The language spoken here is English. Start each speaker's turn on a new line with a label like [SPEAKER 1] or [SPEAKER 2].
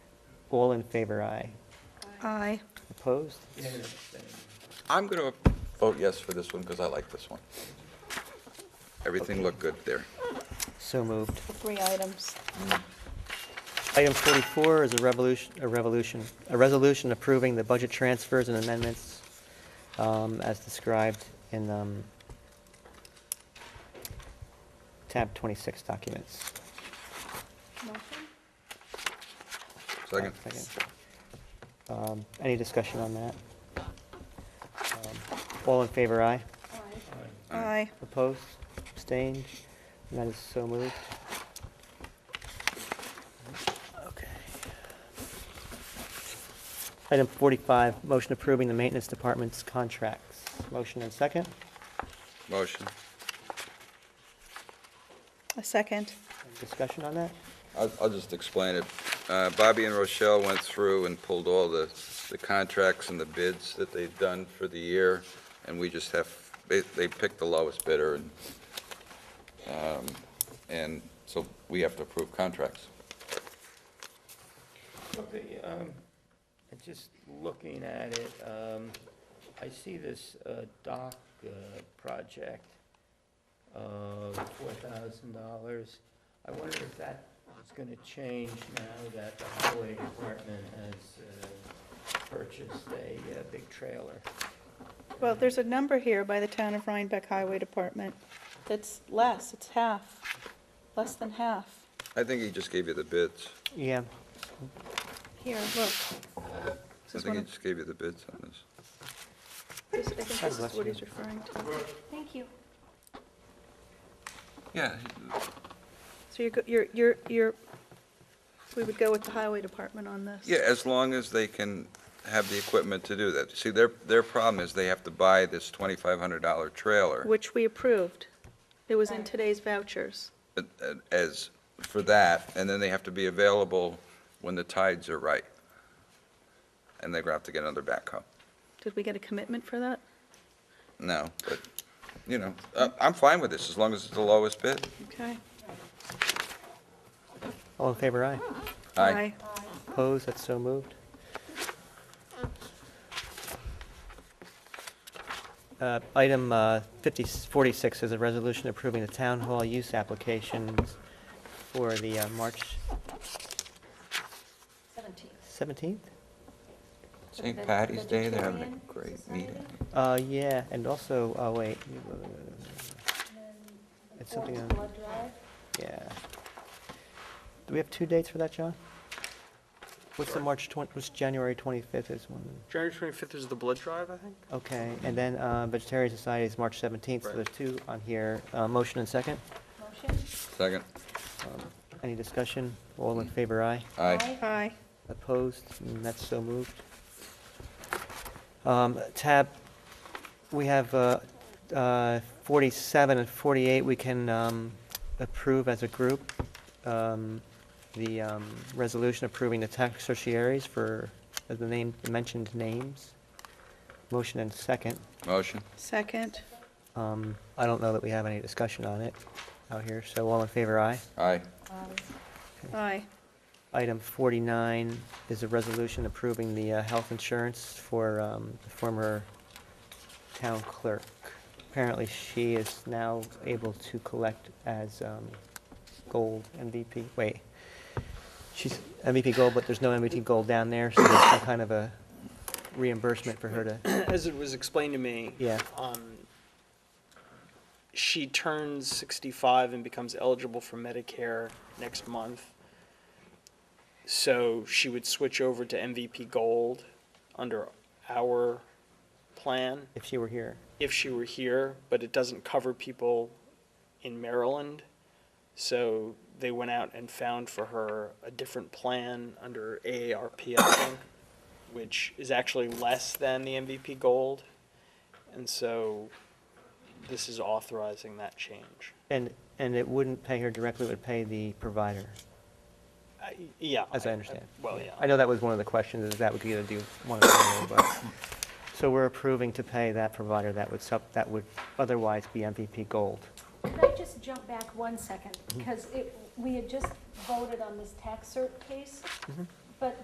[SPEAKER 1] All in favor, aye.
[SPEAKER 2] Aye.
[SPEAKER 1] Opposed?
[SPEAKER 3] I'm going to vote yes for this one because I like this one. Everything looked good there.
[SPEAKER 1] So moved.
[SPEAKER 2] The three items.
[SPEAKER 1] Item 44 is a revolution, a revolution, a resolution approving the budget transfers and amendments um, as described in um, tab 26 documents.
[SPEAKER 2] Motion?
[SPEAKER 3] Second.
[SPEAKER 1] Um, Any discussion on that? Um, All in favor, aye.
[SPEAKER 2] Aye.
[SPEAKER 1] Opposed? Abstained? And that is so moved. Okay. Item 45, motion approving the maintenance department's contracts. Motion and second.
[SPEAKER 3] Motion.
[SPEAKER 2] A second.
[SPEAKER 1] Discussion on that?
[SPEAKER 3] I'll, I'll just explain it. Uh, Bobby and Rochelle went through and pulled all the, the contracts and the bids that they've done for the year, and we just have, they, they picked the lowest bidder, and, um, and so we have to approve contracts.
[SPEAKER 4] Okay, um, I'm just looking at it, um, I see this, uh, dock, uh, project, uh, four thousand dollars. I wonder if that is gonna change now that the highway department has, uh, purchased a, uh big trailer.
[SPEAKER 2] Well, there's a number here by the Town of Rhinebeck Highway Department that's less, it's half, less than half.
[SPEAKER 3] I think he just gave you the bids.
[SPEAKER 1] Yeah.
[SPEAKER 2] Here, look. This
[SPEAKER 3] I
[SPEAKER 2] is
[SPEAKER 3] think
[SPEAKER 2] one
[SPEAKER 3] he
[SPEAKER 2] of,
[SPEAKER 3] just gave you the bids on this.
[SPEAKER 2] this- I think this
[SPEAKER 1] bless
[SPEAKER 2] is what
[SPEAKER 1] you.
[SPEAKER 2] he's referring to. Thank you.
[SPEAKER 3] Yeah,
[SPEAKER 2] So you're go- you're, you're, you're, we would go with the Highway Department on this.
[SPEAKER 3] Yeah, as long as they can have the equipment to do that. See, their, their problem is they have to buy this twenty-five hundred dollar trailer
[SPEAKER 2] Which we approved. It was in today's vouchers.
[SPEAKER 3] uh, uh, as, for that, and then they have to be available when the tides are right. And they're gonna have to get another backhoe.
[SPEAKER 2] Did we get a commitment for that?
[SPEAKER 3] No, but, you know, uh, I'm fine with this, as long as it's the lowest bid.
[SPEAKER 2] Okay.
[SPEAKER 1] All in favor, aye.
[SPEAKER 3] Aye.
[SPEAKER 1] Opposed? That's so moved. Uh, Item uh, 50 46 is a resolution approving the town hall use applications for the uh, March
[SPEAKER 5] Seventeenth.
[SPEAKER 1] 17th?
[SPEAKER 3] St. Patty's Day, they're having a great meeting.
[SPEAKER 1] Uh, yeah, and also, oh, wait. It's something on,
[SPEAKER 5] Blood drive,
[SPEAKER 1] yeah. Do we have two dates for that, John? What's the March 20, what's January 25th is one?
[SPEAKER 6] January 25th is the blood drive, I think?
[SPEAKER 1] Okay, and then uh, Vegetarian Society is March 17th, so
[SPEAKER 6] Right.
[SPEAKER 1] there's two on here. Uh, Motion and second.
[SPEAKER 5] motion?
[SPEAKER 3] Second,
[SPEAKER 1] Um, Any discussion? All in favor, aye.
[SPEAKER 3] aye.
[SPEAKER 2] Aye.
[SPEAKER 1] Opposed? And that's so moved. Um, Tab, we have uh, uh, 47 and 48, we can um, approve as a group. um, The um, resolution approving the tax certiorieries for uh, the name, the mentioned names. Motion and second.
[SPEAKER 3] Motion,
[SPEAKER 2] Second.
[SPEAKER 1] Um, I don't know that we have any discussion on it out here, so all in favor, aye.
[SPEAKER 3] aye.
[SPEAKER 2] Aye.
[SPEAKER 1] Item 49 is a resolution approving the uh, health insurance for um, the former town clerk. Apparently, she is now able to collect as um, gold MVP, wait. She's MVP gold, but there's no MVP gold down there, so there's some kind of a reimbursement for her to,
[SPEAKER 6] As it was explained to me,
[SPEAKER 1] yeah,
[SPEAKER 6] um, she turns 65 and becomes eligible for Medicare next month. So she would switch over to MVP Gold under our plan
[SPEAKER 1] if she were here.
[SPEAKER 6] if she were here, but it doesn't cover people in Maryland. So they went out and found for her a different plan under AARP, I think, which is actually less than the MVP Gold. And so this is authorizing that change.
[SPEAKER 1] And, and it wouldn't pay her directly, it would pay the provider,
[SPEAKER 6] I- Yeah.
[SPEAKER 1] as I understand.
[SPEAKER 6] Well, yeah.
[SPEAKER 1] I know that was one of the questions, is that we could either do one or the other, but, so we're approving to pay that provider that would sub, that would otherwise be MVP Gold.
[SPEAKER 5] Could I just jump back one second? Because it, we had just voted on this tax cert case,